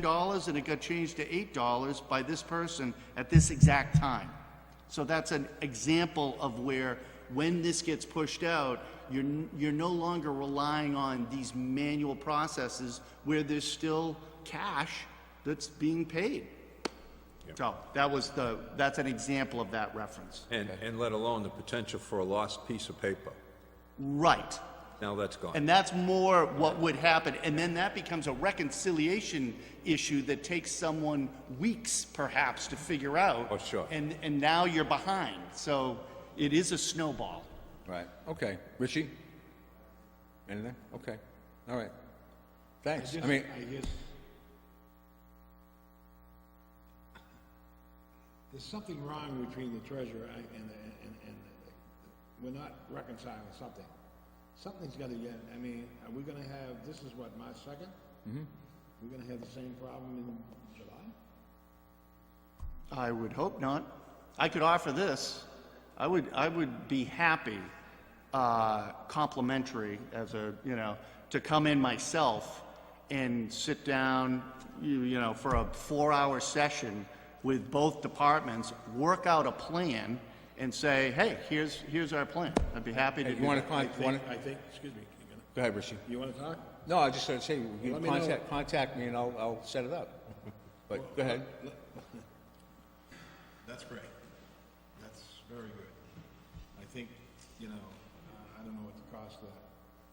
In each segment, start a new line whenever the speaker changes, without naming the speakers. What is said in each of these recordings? $10 and it got changed to $8 by this person at this exact time. So that's an example of where, when this gets pushed out, you're, n- you're no longer relying on these manual processes where there's still cash that's being paid. So that was the, that's an example of that reference.
And, and let alone the potential for a lost piece of paper.
Right.
Now that's gone.
And that's more what would happen. And then that becomes a reconciliation issue that takes someone weeks perhaps to figure out.
Oh, sure.
And, and now you're behind. So it is a snowball.
Right, okay. Richie? Anything? Okay, all right. Thanks, I mean,
I guess. There's something wrong between the treasurer and, and, and, and, we're not reconciling something. Something's gotta get, I mean, are we gonna have, this is what, March second? Mm-hmm. We're gonna have the same problem in July?
I would hope not. I could offer this. I would, I would be happy, uh, complimentary as a, you know, to come in myself and sit down, you, you know, for a four-hour session with both departments, work out a plan and say, hey, here's, here's our plan. I'd be happy to do
you wanna,
that.
con-
I
you wanna,
think, I think, excuse me, you're gonna-
go ahead, Richie.
you wanna talk?
No, I just started saying, you
Let me know.
contact, contact me and I'll, I'll set it up. But, go ahead.
That's great. That's very good. I think, you know, uh, I don't know what the cost of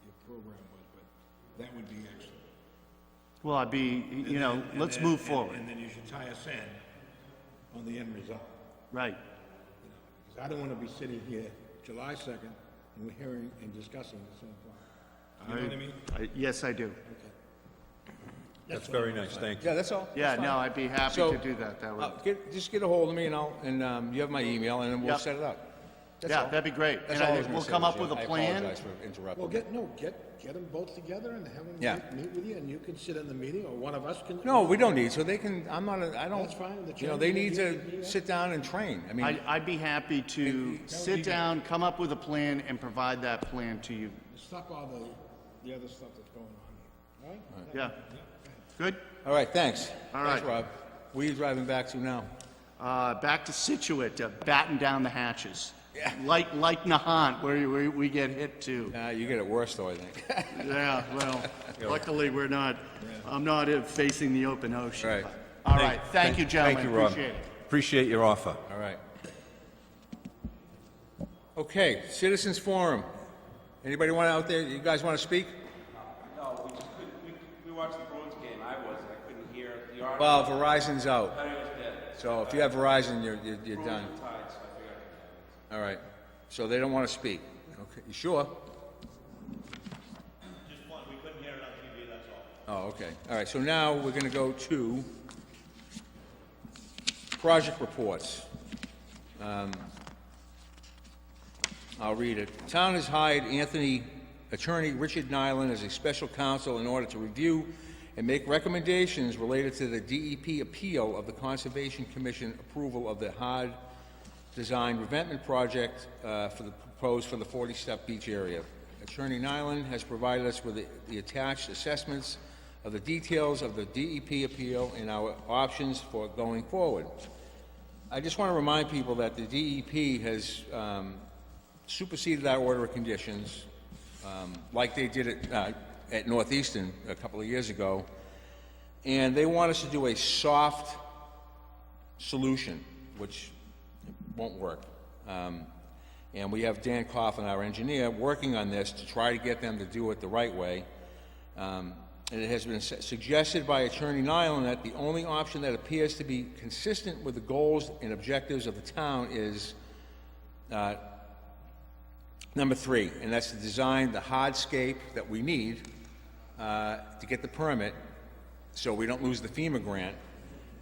your program was, but that would be excellent.
Well, I'd be, you know,
And
let's
then-
move
and-
forward.
And then you should tie us in on the end result.
Right.
Because I don't want to be sitting here July 2nd and we're hearing and discussing the same plan. You know what I mean?
I- Yes, I do.
That's very nice, thank you.
Yeah, that's all.
Yeah,
That's fine.
no, I'd be happy
So,
to do that. That would,
Uh, get, just get a hold of me and I'll, and, um, you have my email and then we'll
Yep.
set it up. That's
yeah,
all.
that'd be great.
That's
And
all
I
I was
think
gonna
we'll
say,
come up
Richie.
with a
I
plan.
apologize for interrupting.
Well, get, no, get, get them both together and have them
Yeah.
meet- meet with you and you can sit in the meeting or one of us can.
No, we don't need, so they can, I'm not, a- I don't.
That's fine, the
You know, they
chairman
need
can do
to
that.
sit down and train. I mean,
I, I'd be happy to sit down, come up with a plan, and provide that plan to you.
Stop all the, the other stuff that's going on here, right?
Yeah. Good?
all right, thanks.
All
Thanks,
right.
Rob. Where you driving back to now?
Uh, back to Situate, to batten down the hatches. Like, like Nahant, where we, we get hit too.
Uh, you get it worse though, I think.
Yeah, well, luckily, we're not, I'm not uh, facing the open ocean.
Right.
All right, thank you,
Thank
gentlemen,
you, Rob.
appreciate it.
Appreciate your offer.
All right. Okay, citizens forum. Anybody want out there, you guys want to speak?
No, we just couldn't, we, we watched the Bruins game, I was, I couldn't hear the audio,
Well, Verizon's out,
but it was dead.
so if you have Verizon, you're, you're, you're done.
Bruins were tied, so I figured I could.
All right, so they don't want to speak. Okay, you sure?
Just one, we couldn't hear it on TV, that's all.
Oh, okay. All right, so now we're going to go to project reports. Um, I'll read it. Town has hired Anthony, attorney Richard Nyland as a special counsel in order to review and make recommendations related to the DEP appeal of the Conservation Commission approval of the hard design revetment project uh, for the, proposed for the 40-step beach area. Attorney Nyland has provided us with the- the attached assessments of the details of the DEP appeal and our options for going forward. I just want to remind people that the DEP has um, superseded our order of conditions, um, like they did at, uh, at Northeastern a couple of years ago, and they want us to do a soft solution, which won't work. Um, And we have Dan Coffin, our engineer, working on this to try to get them to do it the right way. Um, And it has been su- suggested by Attorney Nyland that the only option that appears to be consistent with the goals and objectives of the town is uh, number three, and that's to design the hardscape that we need uh, to get the permit, so we don't lose the FEMA grant,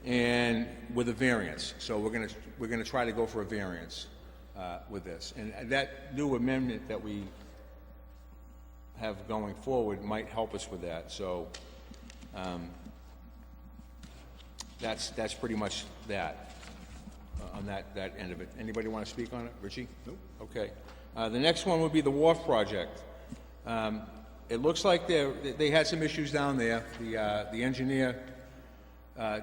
and with a variance. So we're gonna, we're gonna try to go for a variance uh, with this. And that new amendment that we have going forward might help us with that, so, um, that's, that's pretty much that, uh, on that, that end of it. Anybody want to speak on it? Richie? Nope. Okay. Uh, the next one would be the wharf project. Um, it looks like they're, they had some issues down there. The, uh, the engineer uh,